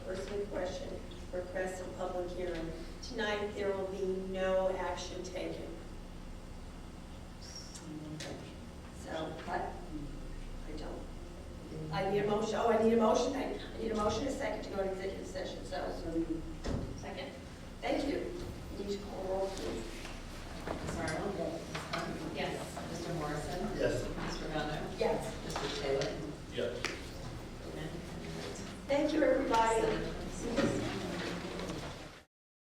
ninth, there will be no action taken. So, what? I don't. I need a motion, oh, I need a motion, I I need a motion, and a second to go to executive session, so. So you